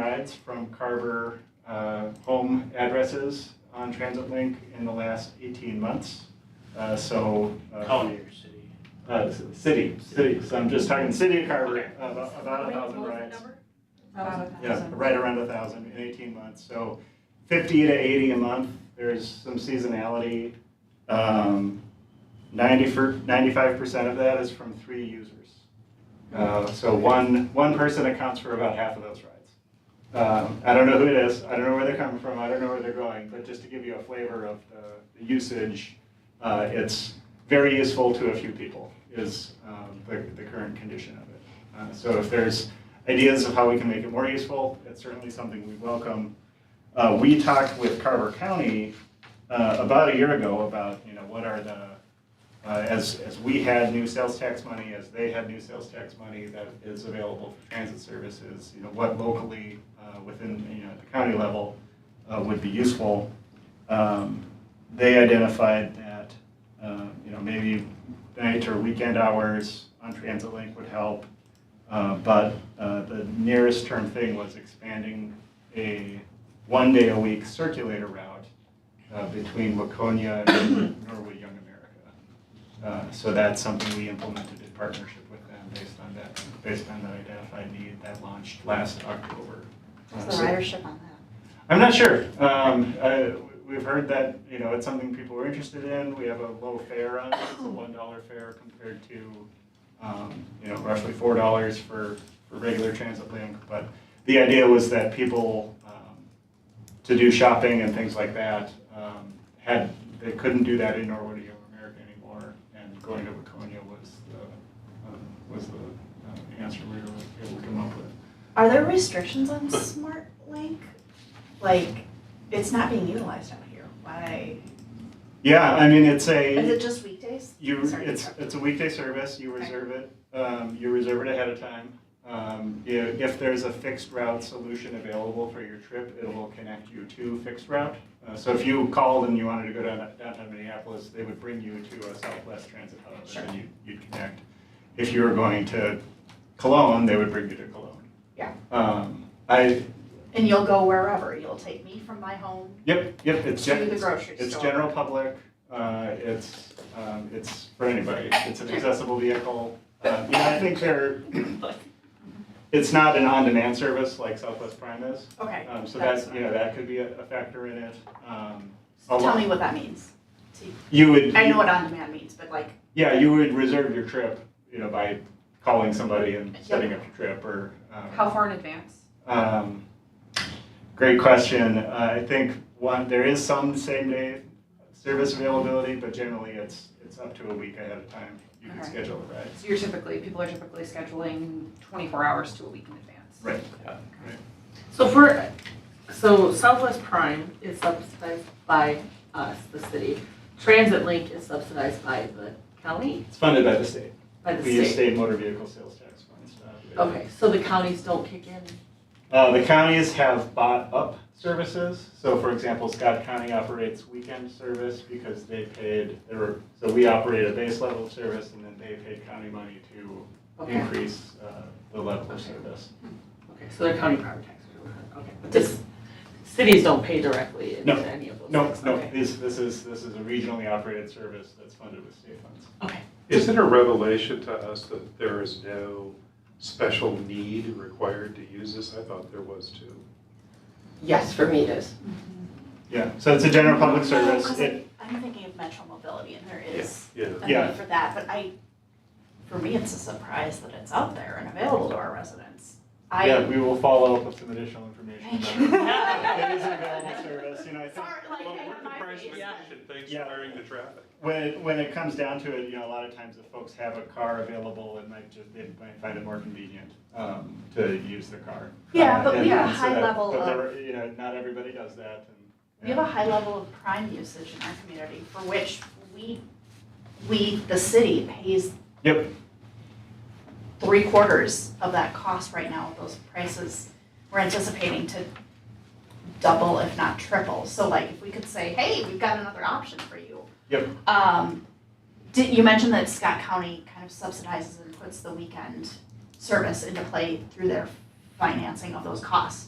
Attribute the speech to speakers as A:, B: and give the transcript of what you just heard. A: ads from Carver uh, home addresses on Transit Link in the last 18 months. Uh, So. uh,
B: County or city?
A: Uh, c- City, city, so I'm just talking city of Carver,
B: Okay.
A: about about a
C: Wait, what
A: thousand
C: was the
A: rides.
C: number?
D: About a
A: Yeah,
D: thousand.
A: right around a thousand in eighteen months, so fifty to eighty a month, there's some seasonality. Um, ninety for, ninety-five percent of that is from three users. Uh, so one, one person accounts for about half of those rides. Um, I don't know who it is, I don't know where they're coming from, I don't know where they're going, but just to give you a flavor of the, the usage, uh, it's very useful to a few people, is, um, the, the current condition of it. Uh, So if there's ideas of how we can make it more useful, it's certainly something we welcome. Uh, We talked with Carver County uh, about a year ago about, you know, what are the, uh, as, as we had new sales tax money, as they had new sales tax money that is available for transit services, you know, what locally uh, within, you know, at the county level uh, would be useful. Um, They identified that, uh, you know, maybe night or weekend hours on Transit Link would help. Uh, But uh, the nearest term thing was expanding a one-day-a-week circulator route uh, between Waconia and Norwood Young America. Uh, So that's something we implemented in partnership with them based on that, based on that identified need that launched last October. Uh,
D: What's the
A: so-
D: ridership on that?
A: I'm not sure. Um, uh, we've heard that, you know, it's something people are interested in. We have a low fare on it. It's a one dollar fare compared to, um, you know, roughly four dollars for, for regular transit link. But the idea was that people, um, to do shopping and things like that, um, had, they couldn't do that in Norwood or Young America anymore. And going to Waconia was the, um, was the uh, answer we were able to come up with.
D: Are there restrictions on Smart Link? Like, it's not being utilized out here. Why?
A: Yeah, I mean, it's a.
D: Is it just weekdays?
A: You,
D: Sorry to
A: it's,
D: interrupt.
A: it's a weekday service, you
D: Okay.
A: reserve it, um, you reserve it ahead of time. Um, i- if, there's a fixed route solution available for your trip, it will connect you to fixed route. Uh, so if you called and you wanted to go down downtown Minneapolis, they would bring you to a Southwest Transit hub,
D: Sure.
A: and you, you'd connect. If you were going to Cologne, they would bring you to Cologne.
D: Yeah.
A: Um, I,
D: And you'll go wherever. You'll take me from my home.
A: Yep, yep, it's.
D: To
A: gen-
D: the grocery
A: It's
D: store.
A: general public, uh, it's, um, it's for anybody, it's an accessible vehicle. Uh, you know, I think they're, it's not an on-demand service like Southwest Prime is.
D: Okay.
A: Um, so
D: that's
A: that, you know, that could be a, a factor in it. Um, a
D: fine. Tell
A: lot-
D: me what that means. See,
A: You would.
D: I know what on demand means, but like,
A: Yeah, you would reserve your trip, you know, by calling somebody and setting up your trip or, um.
C: How far in advance?
A: Um, Great question. Uh, I think one, there is some same-day service availability, but generally it's, it's up to a week ahead of time. You can
C: Okay.
A: schedule a ride.
C: So you're typically, people are typically scheduling twenty-four hours to a week in advance.
A: Right.
E: So for, so Southwest Prime is subsidized by us, the city. Transit Link is subsidized by the county,
A: It's funded by the state.
E: by the
A: We use
E: state.
A: state motor vehicle sales tax funds. uh,
E: Okay, so the counties don't kick in.
A: Uh, the counties have bought up services. So for example, Scott County operates weekend service because they paid, there were, so we operate a base level of service and then they paid county money to
E: Okay,
A: increase uh, the level of service.
E: okay, so they're county property taxes. Okay, but this, cities don't pay directly
A: No,
E: into any of those
A: No,
E: things.
A: no,
E: Okay.
A: this, this is, this is a regionally operated service that's funded with state funds.
E: Okay,
F: Is it a revelation to us that there is no special need required to use this? I thought there was too.
G: Yes, for me it is.
A: Yeah, so it's a general public service.
D: Because
A: It,
D: I- I'm thinking of Metro Mobility and there is
F: Yeah.
D: a
A: Yeah.
D: need for that, but I, for me, it's a surprise that it's out there and available to our residents. I.
A: yeah, we will follow up with some additional information.
D: Thank
A: about
D: you.
A: It It is an available service, you know, I think
D: Sorry, like, I have my face.
F: thanks
A: Yeah.
F: the traffic.
A: when, it- when it comes down to it, you know, a lot of times if folks have a car available, it might just, they might find it more convenient, um, to use the car.
D: Yeah,
A: Uh,
D: but we
A: and-
D: have a
A: and so
D: high
A: that-
D: level
A: but there
D: of-
A: were- You know, not everybody does that and.
D: We have a high level of prime usage in our community for which we, we, the city pays
A: Yep,
D: three quarters of that cost right now with those prices. We're anticipating to double, if not triple. So like if we could say, hey, we've got another option for you.
A: Yep.
D: Um, did, you mentioned that Scott County kind of subsidizes and puts the weekend service into play through their financing of those costs.